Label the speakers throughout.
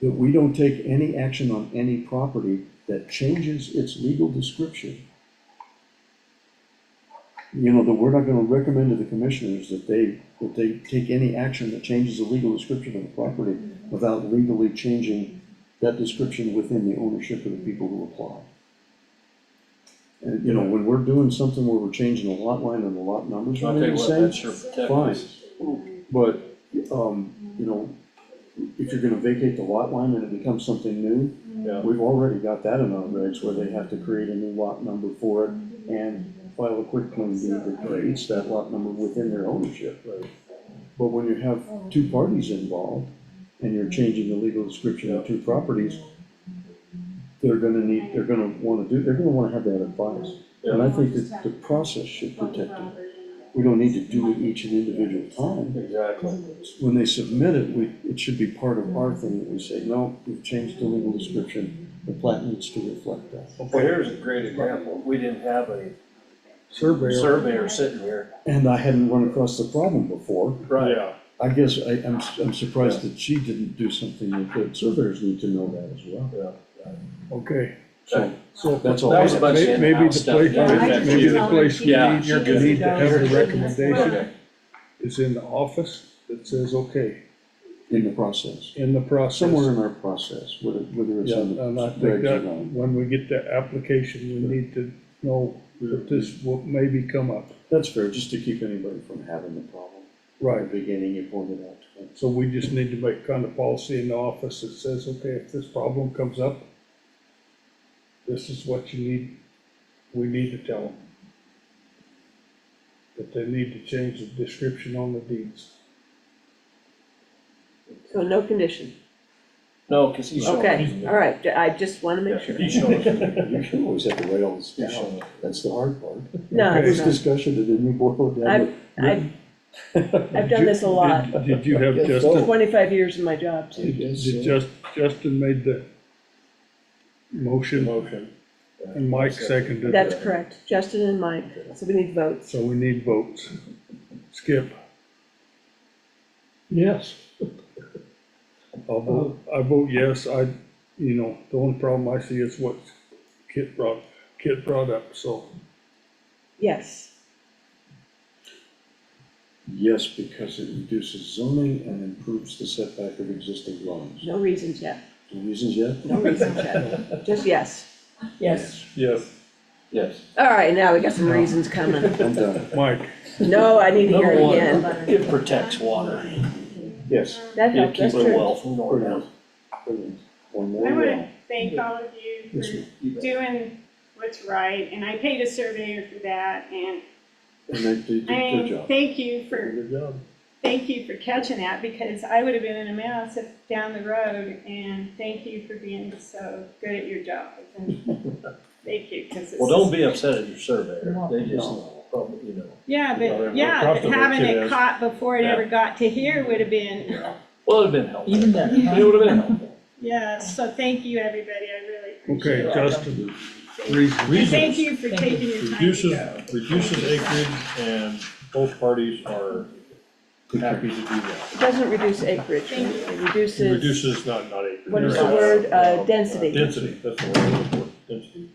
Speaker 1: that we don't take any action on any property that changes its legal description. You know, that we're not gonna recommend to the commissioners that they, that they take any action that changes the legal description of the property without legally changing that description within the ownership of the people who apply. And, you know, when we're doing something where we're changing the lot line and the lot numbers,
Speaker 2: I'll
Speaker 1: remain
Speaker 2: tell you
Speaker 1: the
Speaker 2: what,
Speaker 1: same,
Speaker 2: that's your
Speaker 1: fine.
Speaker 2: protective.
Speaker 1: But, um, you know, if you're gonna vacate the lot line and it becomes something new,
Speaker 2: Yeah.
Speaker 1: we've already got that in our regs where they have to create a new lot number for it and file a quick claim deed that creates that lot number within their ownership. But when you have two parties involved and you're changing the legal description of two properties, they're gonna need, they're gonna wanna do, they're gonna wanna have that advice. And I think that the process should protect it. We don't need to do it each and individual time.
Speaker 2: Exactly.
Speaker 1: When they submit it, we, it should be part of our thing that we say, no, we've changed the legal description, the plat needs to reflect that.
Speaker 2: Well, here's a great example. We didn't have a
Speaker 1: Surveyor.
Speaker 2: surveyor sitting here.
Speaker 1: And I hadn't run across the problem before.
Speaker 2: Right.
Speaker 1: I guess I, I'm, I'm surprised that she didn't do something like that. Surveyors need to know that as well.
Speaker 3: Okay,
Speaker 1: So,
Speaker 3: so.
Speaker 1: that's all.
Speaker 2: That
Speaker 1: I
Speaker 2: was a
Speaker 1: have.
Speaker 2: bunch of
Speaker 3: May- Maybe the
Speaker 2: in-house stuff.
Speaker 3: place,
Speaker 2: Yeah,
Speaker 4: I
Speaker 2: that's
Speaker 3: maybe
Speaker 2: you.
Speaker 3: the place we
Speaker 2: Yeah,
Speaker 3: need, you
Speaker 4: she's
Speaker 3: need to have
Speaker 4: good.
Speaker 3: the recommendation
Speaker 2: Okay.
Speaker 3: is in the office that says, okay,
Speaker 1: In the process,
Speaker 3: in the process.
Speaker 1: somewhere in our process, whether, whether it's
Speaker 3: Yeah,
Speaker 1: in the
Speaker 3: and I think
Speaker 1: regs or
Speaker 3: that
Speaker 1: not.
Speaker 3: when we get the application, we need to know that this will maybe come up.
Speaker 1: That's fair, just to keep anybody from having the problem. At
Speaker 3: Right,
Speaker 1: the beginning, you pointed out to them.
Speaker 3: so we just need to make kind of policy in the office that says, okay, if this problem comes up, this is what you need, we need to tell them. That they need to change the description on the deeds.
Speaker 4: So no condition,
Speaker 2: No, because he's showing. us.
Speaker 4: okay, all right, I just wanna make sure.
Speaker 2: He's showing. us.
Speaker 1: You should always have to write all this
Speaker 2: He's
Speaker 1: down,
Speaker 2: showing us.
Speaker 1: that's the hard part.
Speaker 4: No,
Speaker 3: Okay.
Speaker 1: This
Speaker 4: it's not.
Speaker 1: discussion, it didn't boil it down to
Speaker 4: I've, I've, I've done this a lot,
Speaker 3: Did- Did you have
Speaker 1: Yes,
Speaker 3: Justin,
Speaker 4: twenty-five years in my job too.
Speaker 3: did did Jus- Justin made the motion
Speaker 2: Motion.
Speaker 3: and Mike seconded
Speaker 4: That's
Speaker 3: it,
Speaker 4: correct, Justin and Mike, so we need votes.
Speaker 3: so we need votes. Skip? Yes. I'll vote, I vote yes, I, you know, the only problem I see is what Kit brought, Kit brought up, so.
Speaker 4: Yes,
Speaker 1: Yes, because it reduces zoning and improves the setback of existing dwellings.
Speaker 4: no reasons yet,
Speaker 1: The reasons yet?
Speaker 4: no reasons yet, just yes.
Speaker 5: Yes,
Speaker 3: Yes.
Speaker 2: Yes.
Speaker 4: All right, now we got some reasons coming.
Speaker 1: I'm done.
Speaker 3: Mike,
Speaker 4: No, I need to hear
Speaker 2: Number
Speaker 4: it
Speaker 2: one,
Speaker 4: again.
Speaker 2: it protects water.
Speaker 1: Yes.
Speaker 4: That
Speaker 2: It
Speaker 4: helped, that's
Speaker 2: keeps it
Speaker 4: true.
Speaker 2: well from going down.
Speaker 1: Brilliant. One more
Speaker 6: I
Speaker 1: round.
Speaker 6: wanna thank all of you
Speaker 1: Yes,
Speaker 6: for doing what's right, and I paid a surveyor for that, and,
Speaker 1: And they, they did
Speaker 6: I
Speaker 1: a good
Speaker 6: mean,
Speaker 1: job.
Speaker 6: thank you for,
Speaker 3: good job.
Speaker 6: thank you for catching that, because I would have been in a mess if down the road, and thank you for being so good at your job, and thank you, because it's.
Speaker 2: Well, don't be upset at your surveyor.
Speaker 5: No.
Speaker 2: They just,
Speaker 1: No.
Speaker 2: probably, you know. Well,
Speaker 6: Yeah,
Speaker 2: they're
Speaker 6: but, yeah, but
Speaker 2: comfortable
Speaker 6: having
Speaker 2: with
Speaker 6: it
Speaker 2: it.
Speaker 6: caught before it ever got to here would have been,
Speaker 2: Well, it'd have been helpful.
Speaker 5: even better.
Speaker 2: It would have been helpful.
Speaker 6: yeah, so thank you, everybody, I really appreciate it.
Speaker 3: Okay, Justin, reason.
Speaker 6: And Thank you for taking your time to
Speaker 7: Reduces,
Speaker 6: go.
Speaker 7: reduces acreage and both parties are happy to do that.
Speaker 4: It doesn't reduce acreage,
Speaker 6: Thank you.
Speaker 4: it
Speaker 7: It
Speaker 4: reduces,
Speaker 7: Reduces not, not acreage.
Speaker 4: what is the word, uh, density?
Speaker 7: Density, that's the word, I look for, density.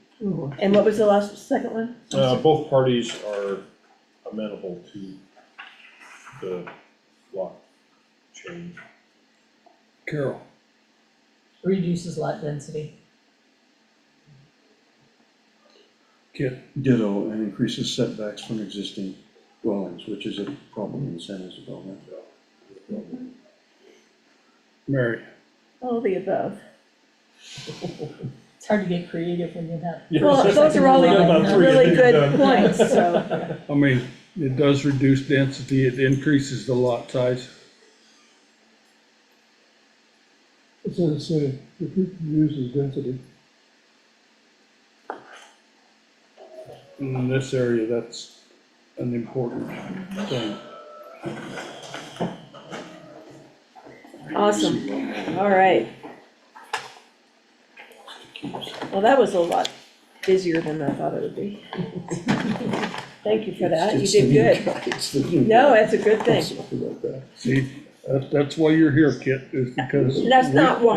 Speaker 4: And what was the last, second one?
Speaker 7: Uh, both parties are amenable to the lot change.
Speaker 3: Carol,
Speaker 5: Reduces lot density.
Speaker 3: Kit,
Speaker 1: Ditto, and increases setbacks from existing dwellings, which is a problem in San Isabel now.
Speaker 3: Mary.
Speaker 4: All the above.
Speaker 5: It's hard to get creative when you have.
Speaker 4: Well, those are all
Speaker 5: Yeah, about three
Speaker 4: really
Speaker 7: and
Speaker 4: good
Speaker 7: done.
Speaker 4: points, so,
Speaker 3: I mean, it does reduce density, it increases the lot size. So it's, uh, reduces density. In this area, that's an important thing.
Speaker 4: awesome, all right. Well, that was a lot busier than I thought it would be. Thank you for that, you
Speaker 1: It's- it's
Speaker 4: did
Speaker 1: the new
Speaker 4: good.
Speaker 1: guy, It's the new
Speaker 4: No,
Speaker 1: guy.
Speaker 4: that's a good
Speaker 1: I'm
Speaker 4: thing.
Speaker 1: sorry about that.
Speaker 3: See, that's, that's why you're here, Kit, is because.
Speaker 4: And That's
Speaker 3: we-
Speaker 4: not why